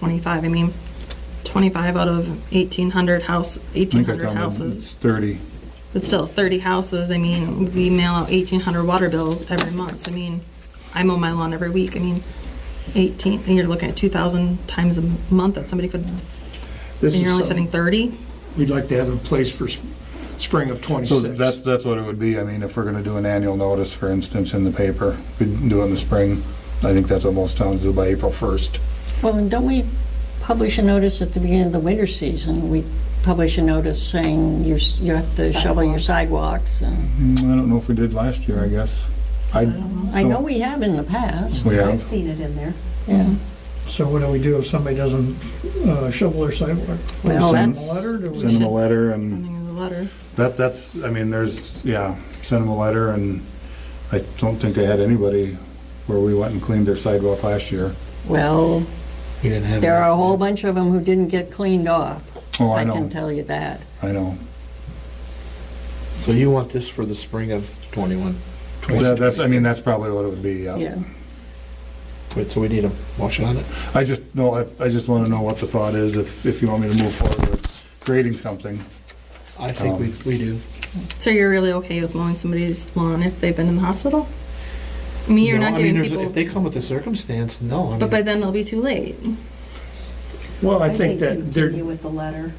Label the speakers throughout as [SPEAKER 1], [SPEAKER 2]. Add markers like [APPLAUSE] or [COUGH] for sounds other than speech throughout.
[SPEAKER 1] 25, I mean, 25 out of 1,800 house,
[SPEAKER 2] I think I
[SPEAKER 1] 1,800
[SPEAKER 2] counted,
[SPEAKER 1] houses.
[SPEAKER 2] It's 30.
[SPEAKER 1] But still, 30 houses, I mean, we mail out 1,800 water bills every month. I mean, I mow my lawn every week. I mean, 18, and you're looking at 2,000 times a month that somebody could, and
[SPEAKER 3] This
[SPEAKER 1] you're only
[SPEAKER 3] is
[SPEAKER 1] setting
[SPEAKER 3] something
[SPEAKER 1] 30?
[SPEAKER 3] we'd like to have in place for s- spring of
[SPEAKER 2] So
[SPEAKER 3] '26.
[SPEAKER 2] that's, that's what it would be. I mean, if we're gonna do an annual notice, for instance, in the paper, we do it in the spring. I think that's what most towns do by April 1st.
[SPEAKER 4] Well, and don't we publish a notice at the beginning of the winter season? We publish a notice saying you s- you have to shovel your sidewalks and,
[SPEAKER 2] Mm, I don't know if we did last year, I guess. I,
[SPEAKER 4] I know we have in the past,
[SPEAKER 2] we
[SPEAKER 5] I've
[SPEAKER 2] have,
[SPEAKER 5] seen it in there.
[SPEAKER 4] yeah.
[SPEAKER 6] So what do we do if somebody doesn't uh, shovel their sidewalk?
[SPEAKER 4] Well,
[SPEAKER 2] Send-
[SPEAKER 4] that's,
[SPEAKER 6] A letter, do we?
[SPEAKER 2] send them a letter and
[SPEAKER 1] Something in the letter.
[SPEAKER 2] that, that's, I mean, there's, yeah, send them a letter and I don't think I had anybody where we went and cleaned their sidewalk last year.
[SPEAKER 4] well,
[SPEAKER 7] You didn't have
[SPEAKER 4] there
[SPEAKER 7] any-
[SPEAKER 4] are a whole bunch of them who didn't get cleaned off.
[SPEAKER 2] Oh, I
[SPEAKER 4] can
[SPEAKER 2] know,
[SPEAKER 4] tell you that.
[SPEAKER 2] I know.
[SPEAKER 7] So you want this for the spring of 21?
[SPEAKER 2] That- That's, I mean, that's probably what it would be, yeah.
[SPEAKER 4] Yeah.
[SPEAKER 7] Wait, so we need a motion on it?
[SPEAKER 2] I just, no, I, I just wanna know what the thought is, if, if you want me to move forward with creating something.
[SPEAKER 7] I think
[SPEAKER 2] Um,
[SPEAKER 7] we, we do.
[SPEAKER 1] So you're really okay with mowing somebody's lawn if they've been in the hospital? I mean, you're
[SPEAKER 7] No,
[SPEAKER 1] not
[SPEAKER 7] I
[SPEAKER 1] giving
[SPEAKER 7] mean, there's- If they
[SPEAKER 1] people,
[SPEAKER 7] come with the circumstance, no. I
[SPEAKER 1] but
[SPEAKER 7] mean,
[SPEAKER 1] by then it'll be too late.
[SPEAKER 3] Well, I think that
[SPEAKER 5] Continue
[SPEAKER 3] there,
[SPEAKER 5] with the letter.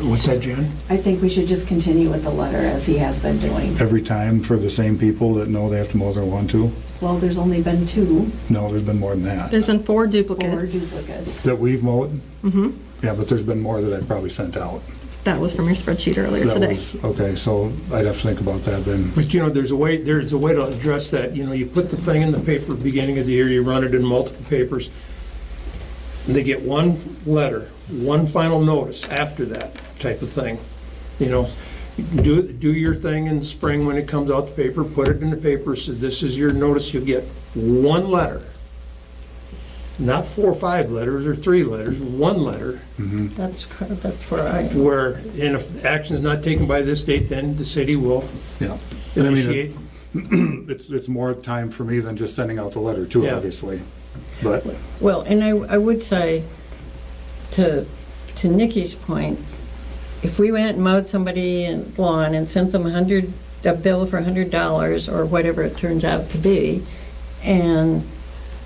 [SPEAKER 3] what's that, Jen?
[SPEAKER 5] I think we should just continue with the letter as he has been doing.
[SPEAKER 2] Every time for the same people that know they have to mow their lawn too?
[SPEAKER 5] Well, there's only been two
[SPEAKER 2] No, there's been more than that.
[SPEAKER 1] There's been four
[SPEAKER 5] or
[SPEAKER 1] duplicates.
[SPEAKER 5] duplicates.
[SPEAKER 2] That we've mowed?
[SPEAKER 1] Mhm.
[SPEAKER 2] Yeah, but there's been more that I've probably sent out.
[SPEAKER 1] That was from your spreadsheet earlier
[SPEAKER 2] That
[SPEAKER 1] today.
[SPEAKER 2] was- Okay, so I'd have to think about that then.
[SPEAKER 3] But you know, there's a way, there's a way to address that. You know, you put the thing in the paper beginning of the year, you run it in multiple papers. and They get one letter, one final notice after that type of thing. You know, do, do your thing in the spring when it comes out the paper, put it in the paper, so this is your notice, you'll get one letter. Not four or five letters or three letters, one letter
[SPEAKER 4] That's, cor- that's where I,
[SPEAKER 3] where, and if action is not taken by this date, then the city will
[SPEAKER 2] Yeah. And I mean,
[SPEAKER 3] initiate.
[SPEAKER 2] It's, it's more time for me than just sending out the letter too,
[SPEAKER 3] Yeah.
[SPEAKER 2] obviously. But,
[SPEAKER 4] well, and I, I would say, to, to Nikki's point, if we went and mowed somebody's lawn and sent them a hundred, a bill for a hundred dollars, or whatever it turns out to be, and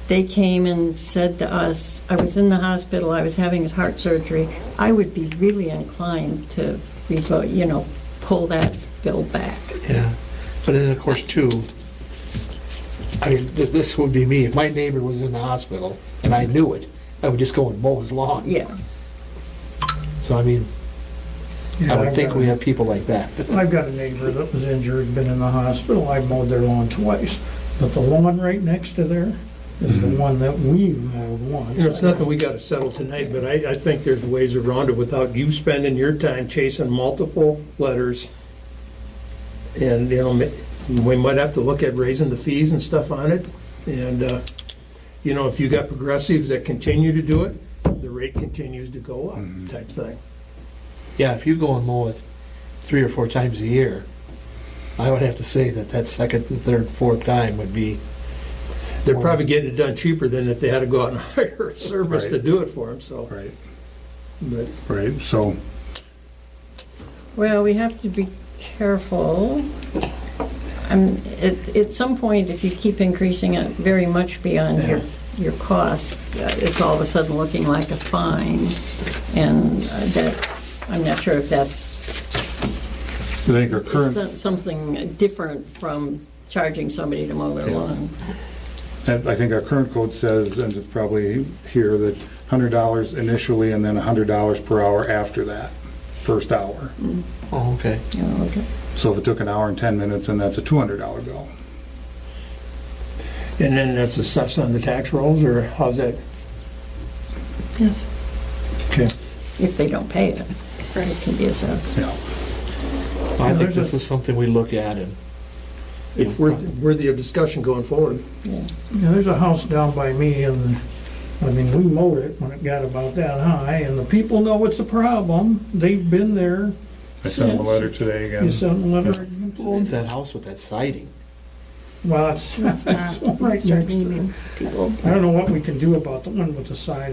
[SPEAKER 4] they came and said to us, I was in the hospital, I was having heart surgery, I would be really inclined to, revoke, you know, pull that bill back.
[SPEAKER 7] Yeah, but then, of course, too, I mean, th- this would be me, if my neighbor was in the hospital and I knew it, I would just go and mow his lawn.
[SPEAKER 1] [LAUGHS]
[SPEAKER 4] Yeah.
[SPEAKER 7] So, I mean, I
[SPEAKER 6] Yeah,
[SPEAKER 7] would
[SPEAKER 6] I've
[SPEAKER 7] think
[SPEAKER 6] got-
[SPEAKER 7] we have people like that. [LAUGHS]
[SPEAKER 6] I've got a neighbor that was injured, been in the hospital, I mowed their lawn twice, but the lawn right next to there is the
[SPEAKER 7] Mm-hmm.
[SPEAKER 6] one that we mowed once.
[SPEAKER 3] You know, It's nothing we gotta settle tonight, but I, I think there's ways around it without you spending your time chasing multiple letters. And, you know, ma- we might have to look at raising the fees and stuff on it. And, uh, you know, if you got progressives that continue to do it, the rate continues to go up type thing.
[SPEAKER 7] Yeah, if you go and mow it three or four times a year, I would have to say that that second, third, fourth time would be,
[SPEAKER 3] They're probably getting it done cheaper than if they had to go out and [LAUGHS] hire a service to
[SPEAKER 2] Right.
[SPEAKER 3] do it for them, so.
[SPEAKER 2] right,
[SPEAKER 3] But
[SPEAKER 2] right, so,
[SPEAKER 4] Well, we have to be careful. Um, At at some point, if you keep increasing it very much beyond your, your cost, uh, it's all of a sudden looking like a fine. And uh, that, I'm not sure if that's
[SPEAKER 2] I think our current,
[SPEAKER 4] some- something different from charging somebody to mow their lawn.
[SPEAKER 2] I think our current code says, and it's probably here, that hundred dollars initially and then hundred dollars per hour after that, first hour.
[SPEAKER 7] oh, okay.
[SPEAKER 4] You know, okay.
[SPEAKER 2] So if it took an hour and ten minutes, then that's a two hundred dollar bill.
[SPEAKER 3] And then that's assessed on the tax rolls, or how's that?
[SPEAKER 1] Yes.
[SPEAKER 3] Okay.
[SPEAKER 4] If they don't pay it, it can be a sentence.
[SPEAKER 2] Yeah.
[SPEAKER 7] I think this is something we look at and,
[SPEAKER 3] It's worth- worthy of discussion going forward.
[SPEAKER 4] yeah.
[SPEAKER 6] Now, there's a house down by me and, I mean, we mowed it when it got about that high and the people know it's a problem. They've been there.
[SPEAKER 2] I sent them a
[SPEAKER 6] since.
[SPEAKER 2] letter today again.
[SPEAKER 6] You sent a letter.
[SPEAKER 7] who owns that house with that siding?
[SPEAKER 6] Well, it's,
[SPEAKER 1] Let's not
[SPEAKER 6] right
[SPEAKER 1] start
[SPEAKER 6] next to
[SPEAKER 1] naming people.
[SPEAKER 6] [LAUGHS] I don't know what we can do about the one with the sign